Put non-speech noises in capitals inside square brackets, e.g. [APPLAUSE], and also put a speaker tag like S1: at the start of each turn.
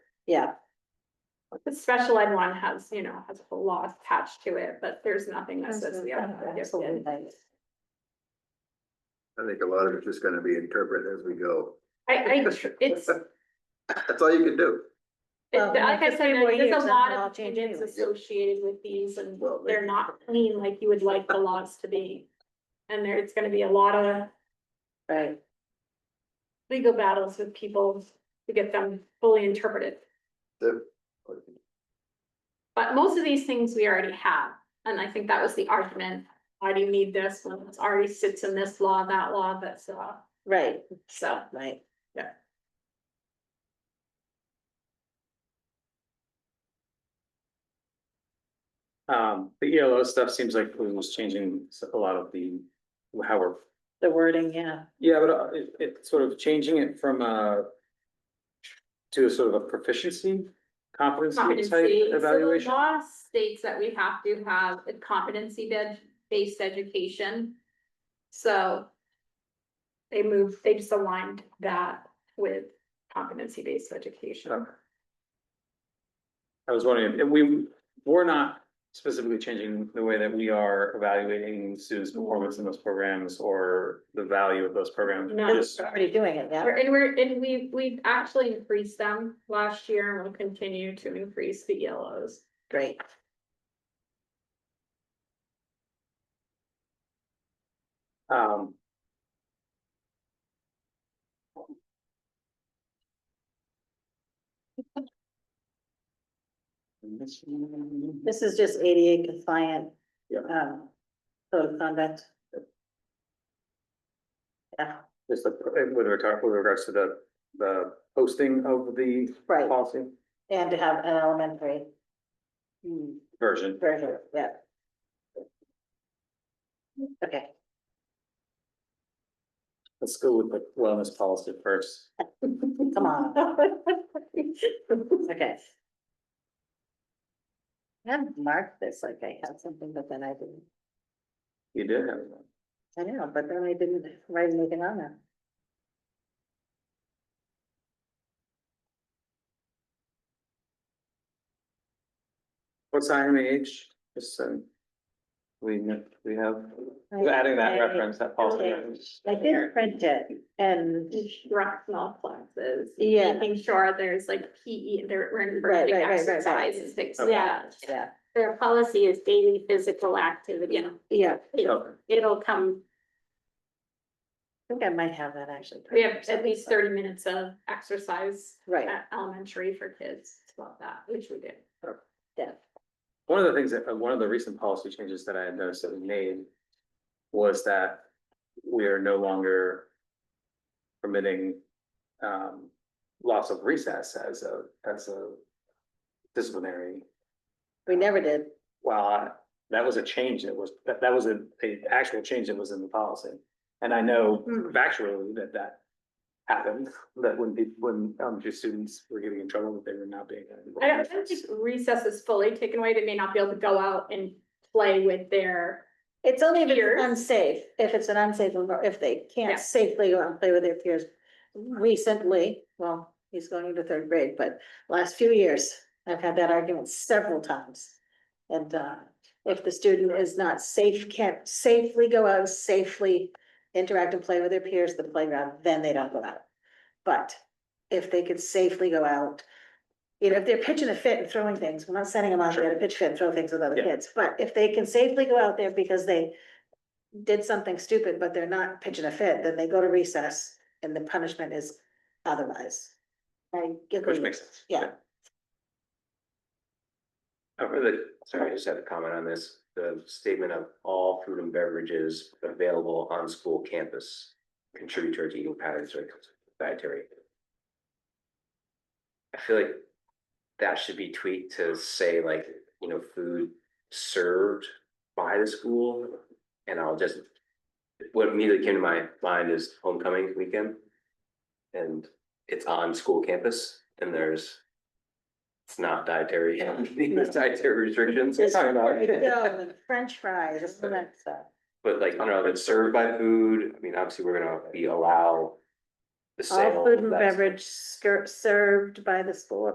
S1: yeah,
S2: The special ed one has, you know, has a whole law attached to it, but there's nothing that says the other. one is
S1: absolutely.
S2: gifted.
S3: I think a lot of it's just gonna be interpreted as we go.
S2: I, I, tr- it's, it-
S3: [LAUGHS] That's all you can do.
S1: Well, in
S2: like I
S1: the
S2: said,
S1: three more years,
S2: there's a
S1: then
S2: lot
S1: it'll all
S2: of
S1: change
S2: opinions
S1: anyway.
S2: associated with these and
S3: Well,
S2: they're not clean like you would like the laws to be. And there, it's gonna be a lot of
S1: Right,
S2: legal battles with people to get them fully interpreted.
S3: The-
S2: But most of these things we already have, and I think that was the argument. Why do you need this when it already sits in this law, that law, that's law,
S1: right,
S2: so.
S1: right.
S4: Um, the ELO stuff seems like it was changing s- a lot of the, how we're,
S1: The wording, yeah,
S4: yeah, but uh, it, it's sort of changing it from a. To a sort of a proficiency, competency type
S2: Competency, so the
S4: evaluation.
S2: law states that we have to have a competency bed- based education. So. They moved, they just aligned that with competency based education.
S4: Okay. I was wondering, if we, we're not specifically changing the way that we are evaluating students' performance in those programs or the value of those programs.
S2: No.
S1: we're
S4: Just-
S1: already doing it, yeah,
S2: We're- And we're, and we, we've actually increased them last year and we will continue to increase the yellows.
S1: great.
S4: Um.
S1: This is just ADA compliant.
S4: Yeah.
S1: Um, code of conduct. Yeah,
S4: Just the, with regard, with regards to the, the posting of the
S1: right,
S4: policy
S1: and to have an elementary. hmm,
S4: version.
S1: Version, yeah. Okay,
S4: Let's go with the wellness policy first.
S1: come on. [LAUGHS] Okay. I marked this like I had something, but then I didn't,
S4: You did have one.
S1: I know, but then I didn't write anything on that.
S4: What's IMH? Just so we, kn- we have,
S1: I-
S4: adding that
S1: I-
S4: reference, that policy.
S1: okay.
S4: reference.
S1: I did print it and
S2: Instructional classes.
S1: Yeah.
S2: Making sure there's like PE, there, we're
S1: Right,
S2: inverting
S1: right, right, right, right.
S2: exercises, things like
S4: Okay.
S2: that.
S1: yeah,
S5: Their policy is daily physical activity.
S2: Yeah.
S1: yeah, I
S4: Okay.
S5: It'll come,
S1: think I might have that actually.
S2: We have at least thirty minutes of exercise
S1: Right,
S2: at elementary for kids about that, which we did.
S1: yeah,
S4: One of the things that, uh, one of the recent policy changes that I had noticed that we made was that we are no longer permitting um loss of recess as a, as a disciplinary.
S1: we never did,
S4: Well, I- that was a change that was, that that was a, a actual change that was in the policy. And I know
S2: Hmm.
S4: factually that that happened, that when people, when elementary students were getting in trouble, that they were not being. uh,
S2: I don't, I don't think recess is fully taken away, they may not be able to go out and play with their,
S1: it's only if
S2: Peers?
S1: it's unsafe, if it's an unsafe, envir- if they
S2: Yeah.
S1: can't safely go out and play with their peers. Recently, well, he's going into third grade, but last few years, I've had that argument several times. And uh, if the student is not safe, can't safely go out, safely interact and play with their peers at the playground, then they don't go out. But if they could safely go out, you know, if they're pitching a fit and throwing things, we're not sending them out there to pitch fit and throw things with other
S4: Yeah.
S1: kids, but if they can safely go out there because they did something stupid, but they're not pitching a fit, then they go to recess and the punishment is otherwise. I agree.
S4: Which makes sense.
S1: Yeah.
S4: Okay.
S6: The- Sorry, I just had a comment on this, the statement of all food and beverages available on school campus contribute towards eating patterns or dietary. I feel like that should be tweaked to say like, you know, food served by the school. And I'll just, what immediately came to my mind is homecoming weekend. And it's on school campus and there's, it's not dietary, [LAUGHS] there's dietary restrictions.
S1: It's-
S4: Sorry about it.
S1: Yeah, the French fries, all that stuff.
S6: But like, I don't know, if it's served by food, I mean, obviously, we're gonna be allow. The sale.
S1: All food and
S6: that's-
S1: beverage ser- served by the school